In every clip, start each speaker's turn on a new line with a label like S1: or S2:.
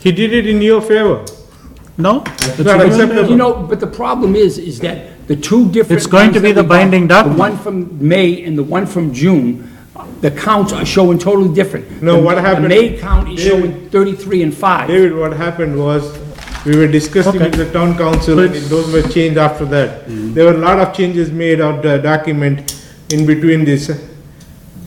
S1: He did it in your favor.
S2: No? it's
S1: not
S2: a-
S1: acceptable.
S3: You know, but the problem is, is that the two different.
S2: It's going to
S3: ones
S2: be the
S3: that we got,
S2: binding document.
S3: The one from May and the one from June, the counts are showing totally different.
S1: No,
S3: The-
S1: what happened-
S3: The May count is
S1: David-
S3: showing 33 and 5.
S1: David, what happened was, we were discussing with the town council, and those were changed after that. There were a lot of changes made of the document in between this
S3: Yeah,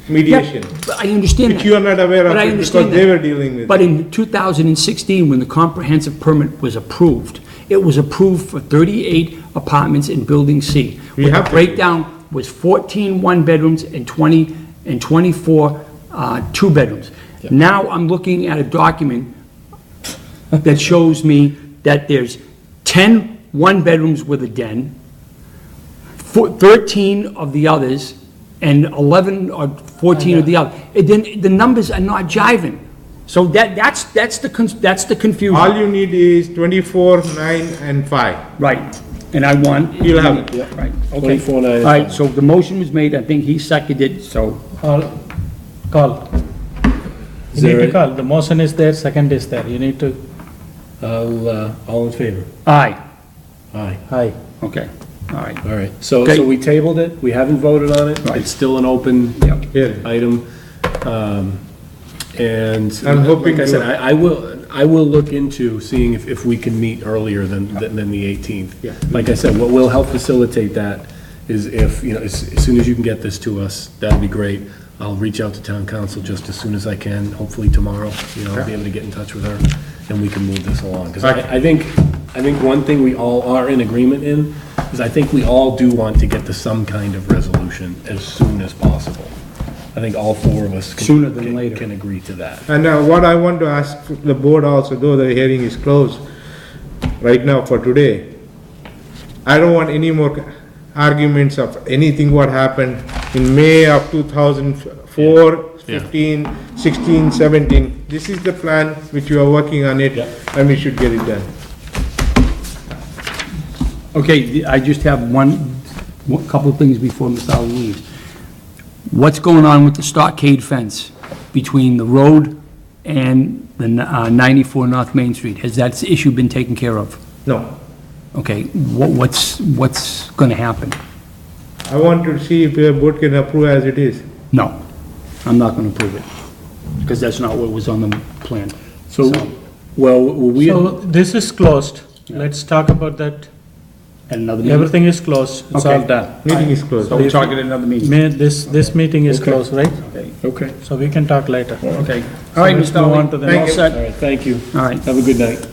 S1: mediation.
S3: but I understand that.
S1: Which you are not aware of
S3: But I
S1: it
S3: understand
S1: because they
S3: that.
S1: were dealing with
S3: But in 2016, when the comprehensive permit was approved, it was approved for 38 apartments in Building C.
S1: We
S3: What
S1: have
S3: The
S1: to-
S3: breakdown was 14 one-bedrooms and 20, and 24 uh, two-bedrooms. Now I'm looking at a document that shows me that there's 10 one-bedrooms with a den, four- 13 of the others, and 11 or 14 of the other. It didn't, the numbers are not jiving. So that, that's, that's the, cons- that's the
S1: All
S3: confusion.
S1: you need is twenty-four, nine, and five.
S3: Right, and I want.
S1: You'll have it.
S3: Right, okay.
S4: 24 and I-
S3: All right, so the motion was made, I think he seconded it, so.
S2: Call, call. You need to call, the motion is there, second is there, you need to,
S4: I'll, uh, all in favor?
S3: Aye,
S4: Aye.
S2: aye.
S3: okay, all right.
S4: All right, so,
S3: Okay.
S4: so we tabled it, we haven't voted on it,
S3: Right.
S4: it's still an open
S3: Yep.
S1: Hearing.
S4: item. Um, And.
S1: I'm hoping
S4: Like I said,
S1: to-
S4: I, I will, I will look into seeing if, if we can meet earlier than, than than the 18th.
S3: Yeah.
S4: Like I said, what will help facilitate that is if, you know, as, as soon as you can get this to us, that'd be great. I'll reach out to town council just as soon as I can, hopefully tomorrow, you know, I'll be able to get in touch with her, and we can move this along. Because I, I think, I think one thing we all are in agreement in is I think we all do want to get to some kind of resolution as soon as possible. I think all four of us. can-
S3: Sooner than
S4: can-
S3: later.
S4: Can agree to that.
S1: And uh, what I want to ask the board also, though the hearing is closed right now for today, I don't want any more arguments of anything what happened in May of 2004,
S4: Yeah.
S1: 15, 16, 17. This is the plan which you are working on it,
S4: Yeah.
S1: and we should get it done.
S3: Okay, the- I just have one, one- couple of things before Ms. Ali leaves. What's going on with the stockade fence between the road and the n- uh, 94 North Main Street? Has that issue been taken care of?
S1: No,
S3: Okay, wha- what's, what's going to happen?
S1: I want to see if the board can approve as it is.
S3: No, I'm not going to approve it, because that's not what was on the plan.
S4: So, well, we.
S2: So this is closed, let's talk about that,
S3: At another meeting?
S2: everything is closed, it's all
S3: Okay.
S2: done.
S1: Meeting is closed.
S3: So we'll talk at another meeting.
S2: May, this, this meeting is
S4: Okay.
S2: closed, right?
S4: Okay.
S2: So we can talk later.
S3: Okay. All right,
S2: let's
S3: Mr.
S2: move
S3: Ali.
S2: on to the
S3: all
S2: next.
S3: set?
S4: All right, thank you.
S3: All right,
S4: Have a good night.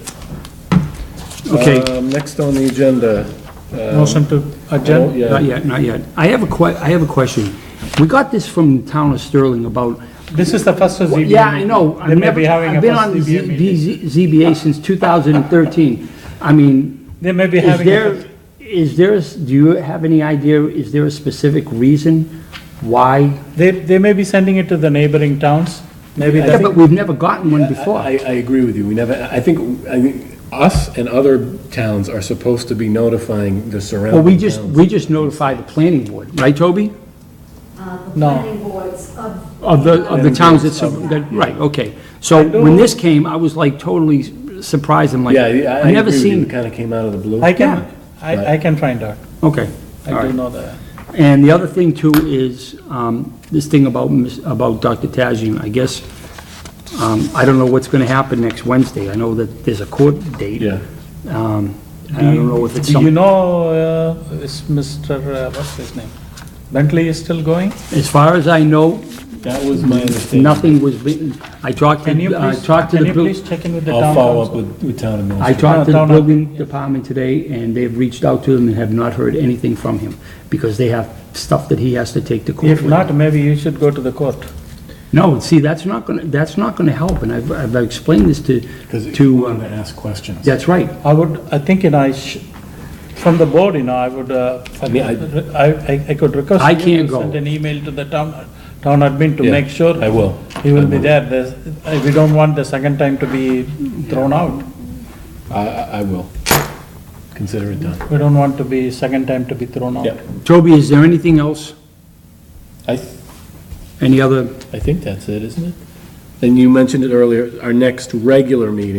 S3: okay.
S4: Um, Next on the agenda. um,
S2: Motion to
S4: oh,
S2: adjourn,
S4: Yeah.
S3: Not yet, not yet. I have a que, I have a question. We got this from the town of Sterling about,
S2: this is the first ZBA meeting.
S3: yeah, I know. I've
S2: They may
S3: never-
S2: be having a
S3: I've been on
S2: first
S3: the
S2: ZBA meeting.
S3: Z- ZBA since 2013. I mean,
S2: They may be
S3: is
S2: having, a
S3: there,
S2: first-
S3: is there, do you have any idea, is there a specific reason why?
S2: they, they may be sending it to the neighboring towns, maybe
S3: Yeah,
S2: that's.
S3: but we've never gotten one before.
S4: I, I agree with you. We never, I think, I think us and other towns are supposed to be notifying the
S3: Well,
S4: surrounding
S3: we just,
S4: towns.
S3: we just notify the planning board, right, Toby?
S5: uh, the
S2: No.
S5: planning boards of.
S3: Of the, of the towns that's, that, right, okay. So when this came, I was like totally surprised, I'm like,
S4: Yeah, I- I
S3: I've
S4: agree
S3: never
S4: with you. It
S3: seen,
S4: kind of came out of the blue.
S2: I can,
S3: Yeah.
S2: I, I can find out,
S3: okay.
S2: I
S3: all right.
S2: do know that.
S3: And the other thing too is, um, this thing about, Ms- about Dr. Tajin, I guess, um, I don't know what's gonna happen next Wednesday. I know that there's a court date.
S4: Yeah.
S3: Um, and I don't know if it's
S2: Do you
S3: some,
S2: know, uh, is Mr., uh, what's his name? Bentley is still going?
S3: as far as I know,
S4: That was my understanding.
S3: nothing was written. I talked
S2: Can you
S3: to, I
S2: please,
S3: talked to
S2: can
S3: the,
S2: you
S3: buil-
S2: please check in with the
S4: I'll
S2: town
S4: follow up
S2: council?
S4: with, with town
S3: I
S4: administration.
S3: talked to the
S2: No, no, no.
S3: building department today and they've reached out to him and have not heard anything from him because they have stuff that he has to take to court.
S2: If
S3: with.
S2: not, maybe you should go to the court.
S3: No, see, that's not gonna, that's not gonna help. And I've, I've explained this to,
S4: Because you
S3: to,
S4: wanted
S3: uh,
S4: to ask questions.
S3: that's right.
S2: I would, I think, you know, I sh from the board, you know, I would, uh,
S4: mean, I-
S2: I, I- I could request.
S3: I
S2: you to
S3: can't go.
S2: Send an email to the town, town admin to
S4: Yeah,
S2: make sure.
S4: I will.
S2: He will be there, There's- uh, we don't want the second time to be thrown out,
S4: I, I I will. Consider it done.
S2: we don't want to be, second time to be thrown out.
S4: Yeah.
S3: Toby, is there anything else?
S4: I, th-
S3: Any other?
S4: I think that's it, isn't it? And you mentioned it earlier, our next regular meeting